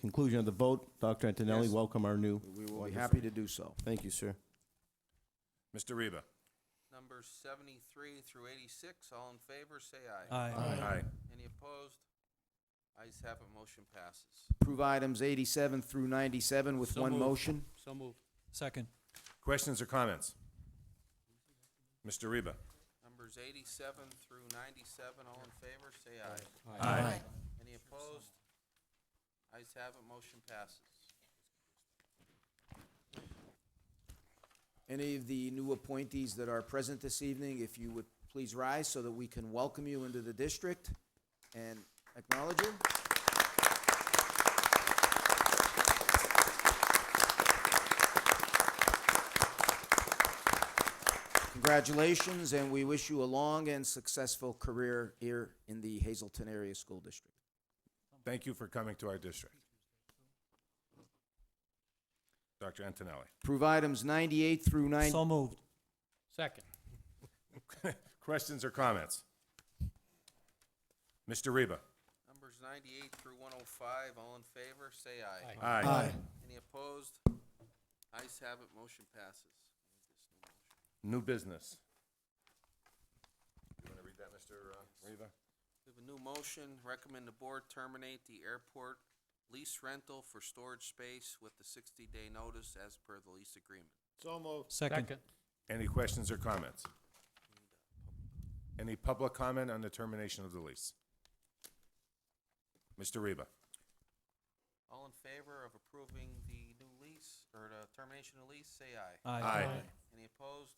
conclusion of the vote, Dr. Antonelli, Yes. welcome our new, We will be happy to do so. thank you, sir. Mr. Reba? Numbers seventy-three through eighty-six, all in favor, say aye. Aye. Aye. Any opposed? Ayes have it, motion passes. Approve items 87 through 97 with So one moved. motion. So moved. Second. Questions or comments? Mr. Reba? Numbers eighty-seven through ninety-seven, all in favor, say aye. Aye. Any opposed? Ayes have it, motion passes. Any of the new appointees that are present this evening, if you would please rise so that we can welcome you into the district and acknowledge you. Congratulations, and we wish you a long and successful career here in the Hazelton Area School District. Thank you for coming to our district. Dr. Antonelli? Approve items 98 through 90. So moved. Second. Questions or comments? Mr. Reba? Numbers ninety-eight through one oh five, all in favor, say aye. Aye. Any opposed? Ayes have it, motion passes. New business. You want to read that, Mr. uh, Reba? We have a new motion, recommend the board terminate the airport lease rental for storage space with the sixty-day notice as per the lease agreement. Second. Any questions or comments? Any public comment on the termination of the lease? Mr. Reba? All in favor of approving the new lease, or the termination of lease, say aye. Aye. Any opposed?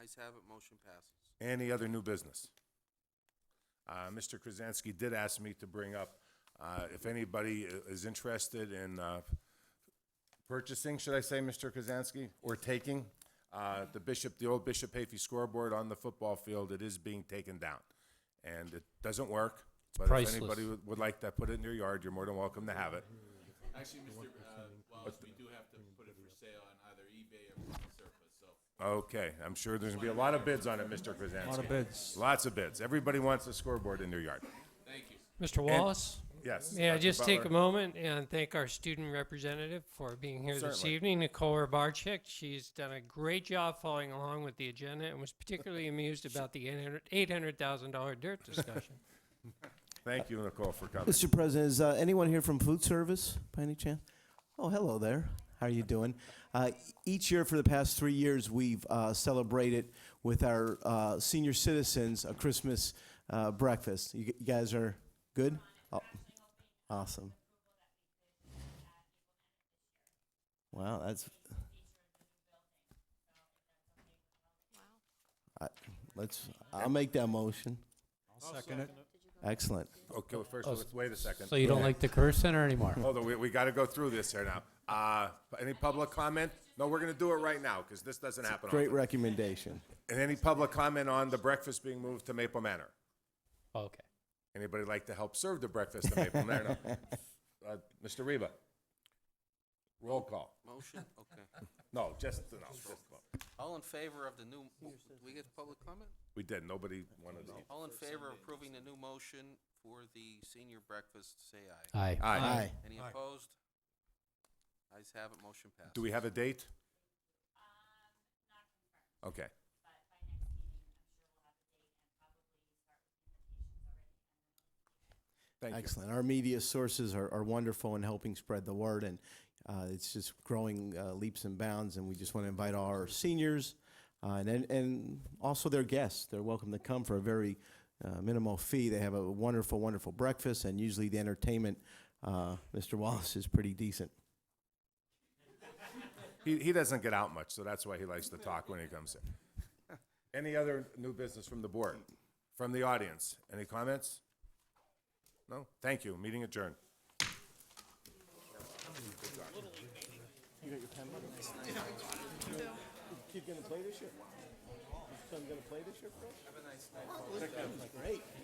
Ayes have it, motion passes. Any other new business? Uh, Mr. Krasinski did ask me to bring up, uh, if anybody i- is interested in uh, purchasing, should I say, Mr. Krasinski, or taking, uh, the Bishop, the old Bishop Hafey scoreboard on the football field, it is being taken down. And it doesn't work, but if priceless. anybody would- would like to put it in your yard, you're more than welcome to have it. Actually, Mr. uh, Wallace, we do have to put it for sale on either eBay or Surface, so. Okay, I'm sure there's gonna be a lot of bids on it, Mr. A lot of Krasinski. bids. Lots of bids. Everybody wants a scoreboard in their yard. Mr. Wallace? Yes. May I Dr. just take Butler? a moment and thank our student representative for being here this Certainly. evening, Nicole Rabarchik. She's done a great job following along with the agenda and was particularly amused about the $800,000 dirt discussion. Thank you, Nicole, for coming. Mr. President, is uh, anyone here from food service by any chance? Oh, hello there. How are you doing? Uh, each year for the past three years, we've uh, celebrated with our uh, senior citizens a Christmas uh, breakfast. You, g- you guys are good? Oh, awesome. Wow, that's. I, let's. I'll make that motion. Second it. Excellent. Okay, well, first, let's wait a second. oh, you don't like the Career Center anymore? Hold on, we, we gotta go through this here now. Uh, any public comment? No, we're gonna do it right now, because this doesn't happen Great often. recommendation. And any public comment on the breakfast being moved to Maple Manor? Okay. Anybody like to help serve the breakfast at Maple Manor? No. Uh, Mr. Reba? Roll call. Motion, okay. No, just, no, just, no. All in favor of the new, we get public comment? we did, nobody wanted to. All in favor of approving the new motion for the senior breakfast, say aye. Aye. Aye. Any Aye. opposed? Ayes have it, motion passes. Do we have a date? Okay. Thank you. Excellent. Our media sources are, are wonderful in helping spread the word, and uh, it's just growing uh, leaps and bounds. And we just want to invite all our seniors uh, and, and and also their guests. They're welcome to come for a very uh, minimal fee. They have a wonderful, wonderful breakfast, and usually the entertainment, uh, Mr. Wallace, is pretty decent. He, he doesn't get out much, so that's why he likes to talk when he comes in. Any other new business from the board, from the audience? Any comments? No? Thank you. Meeting adjourned. Kid gonna play this year? Son gonna play this year? Have a nice night. Great.